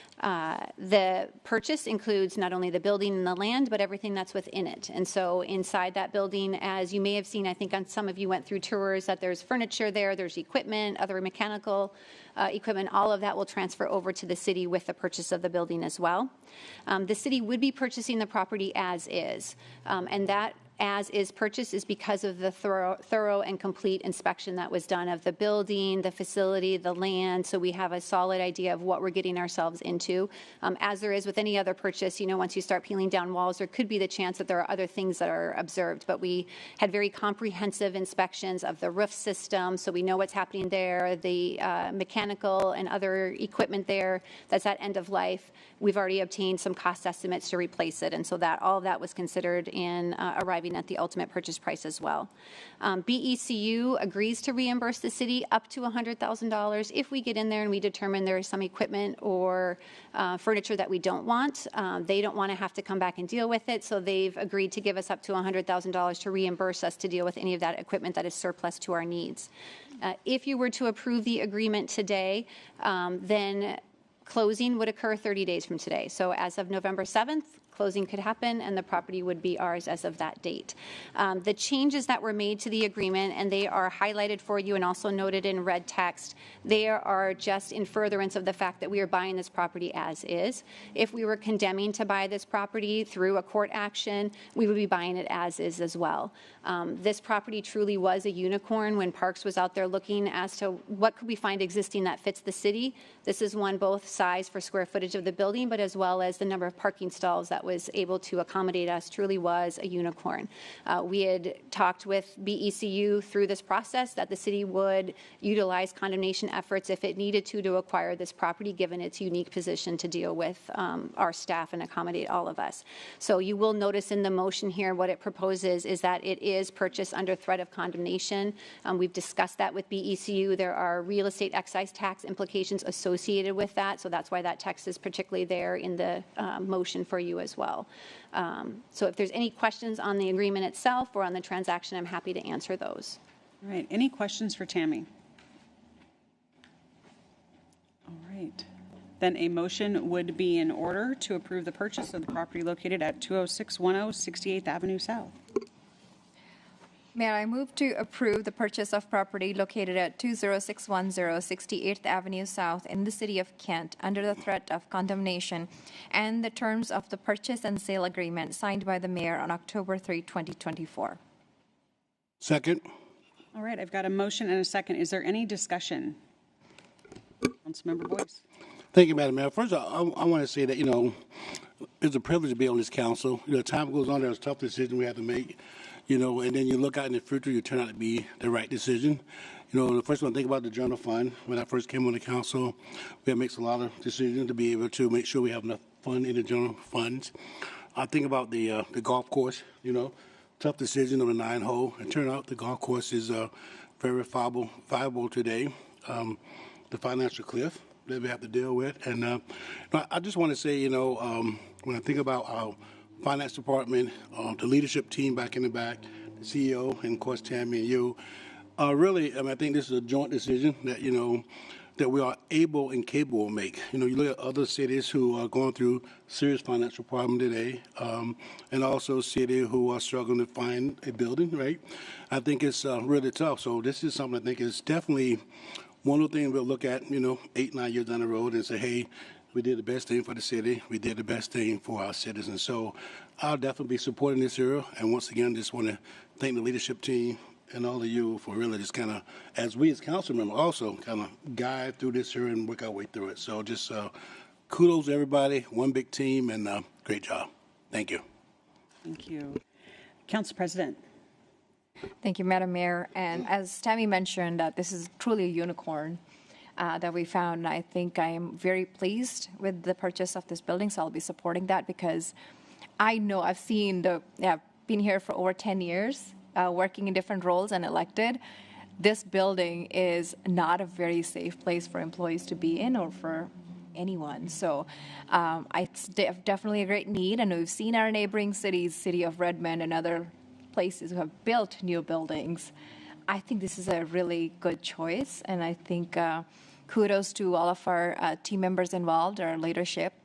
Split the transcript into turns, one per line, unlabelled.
Uh, The purchase includes not only the building and the land, but everything that's within it. And so inside that building, as you may have seen, I think on some of you went through tours, that there's furniture there, there's equipment, other mechanical uh, equipment, all of that will transfer over to the city with the purchase of the building as well. Um, The city would be purchasing the property as is, Um, and that as-is purchase is because of the thorough thorough and complete inspection that was done of the building, the facility, the land, so we have a solid idea of what we're getting ourselves into. Um, As there is with any other purchase, you know, once you start peeling down walls, there could be the chance that there are other things that are observed, but we had very comprehensive inspections of the roof system, so we know what's happening there, the uh, mechanical and other equipment there that's at end of life. We've already obtained some cost estimates to replace it, and so that, all of that was considered in uh, arriving at the ultimate purchase price as well. Um, BECU agrees to reimburse the city up to $100,000 if we get in there and we determine there is some equipment or uh, furniture that we don't want. Um, They don't want to have to come back and deal with it, so they've agreed to give us up to $100,000 to reimburse us to deal with any of that equipment that is surplus to our needs. Uh, If you were to approve the agreement today, um, then closing would occur 30 days from today. So as of November 7th, closing could happen, and the property would be ours as of that date. Um, The changes that were made to the agreement, and they are highlighted for you and also noted in red text, they are just in furtherance of the fact that we are buying this property as is. If we were condemning to buy this property through a court action, we would be buying it as is as well. Um, This property truly was a unicorn when Parks was out there looking as to what could we find existing that fits the city. This is one both size for square footage of the building, but as well as the number of parking stalls that was able to accommodate us truly was a unicorn. Uh, We had talked with BECU through this process that the city would utilize condemnation efforts if it needed to to acquire this property, given its unique position to deal with um, our staff and accommodate all of us. So you will notice in the motion here, what it proposes is that it is purchased under threat of condemnation. Um, We've discussed that with BECU. There are real estate excise tax implications associated with that, so that's why that text is particularly there in the uh, motion for you as well. Um, So if there's any questions on the agreement itself or on the transaction, I'm happy to answer those.
All right, any questions for Tammy? All right, then a motion would be in order to approve the purchase of the property located at 20610 68th Avenue South.
Mayor, I move to approve the purchase of property located at 20610 68th Avenue South in the city of Kent under the threat of condemnation and the terms of the purchase and sale agreement signed by the mayor on October 3, 2024.
Second.
All right, I've got a motion and a second. Is there any discussion? Councilmember Boyce.
Thank you, Madam Mayor. First, I, I want to say that, you know, it's a privilege to be on this council. You know, time goes on, there's tough decisions we have to make, you know, and then you look out in the future, you turn out to be the right decision. You know, the first one, think about the general fund. When I first came on the council, we had makes a lot of decisions to be able to make sure we have enough fund in the general funds. I think about the, uh, the golf course, you know, tough decision on the nine hole. It turned out the golf course is, uh, very viable, viable today. Um, the financial cliff that we have to deal with. And uh, I- I just want to say, you know, um, when I think about our finance department, uh, the leadership team back in the back, the CEO, and of course Tammy and you, uh, really, I, mean, I think this is a joint decision that you know that we are able and capable of make. You know, you look at other cities who are going through serious financial problem today, um, and also city who are struggling to find a building. Right, I think it's uh, really tough. So this is something I think is definitely one of the things we'll look at, you know, eight, nine years down the road and say, hey, we did the best thing for the city. We did the best thing for our citizens. So I'll definitely be supporting this area. And once again, just want to thank the leadership team and all of you for really just kind of, as we as council members also kind of guide through this here and work our way through it. So just uh, kudos to everybody, one big team, and uh, great job. Thank you.
Thank you. Council President.
Thank you, Madam Mayor. And as Tammy mentioned, that this is truly a unicorn uh, that we found. I think I am very pleased with the purchase of this building, so I'll be supporting that because I know I've seen the, yeah, I've been here for over 10 years, uh, working in different roles and elected. This building is not a very safe place for employees to be in or for anyone. So um, it's de- definitely a great need, and we've seen our neighboring cities, city of Redmond and other places who have built new buildings. I think this is a really good choice, and I think uh, kudos to all of our uh, team members involved, our leadership,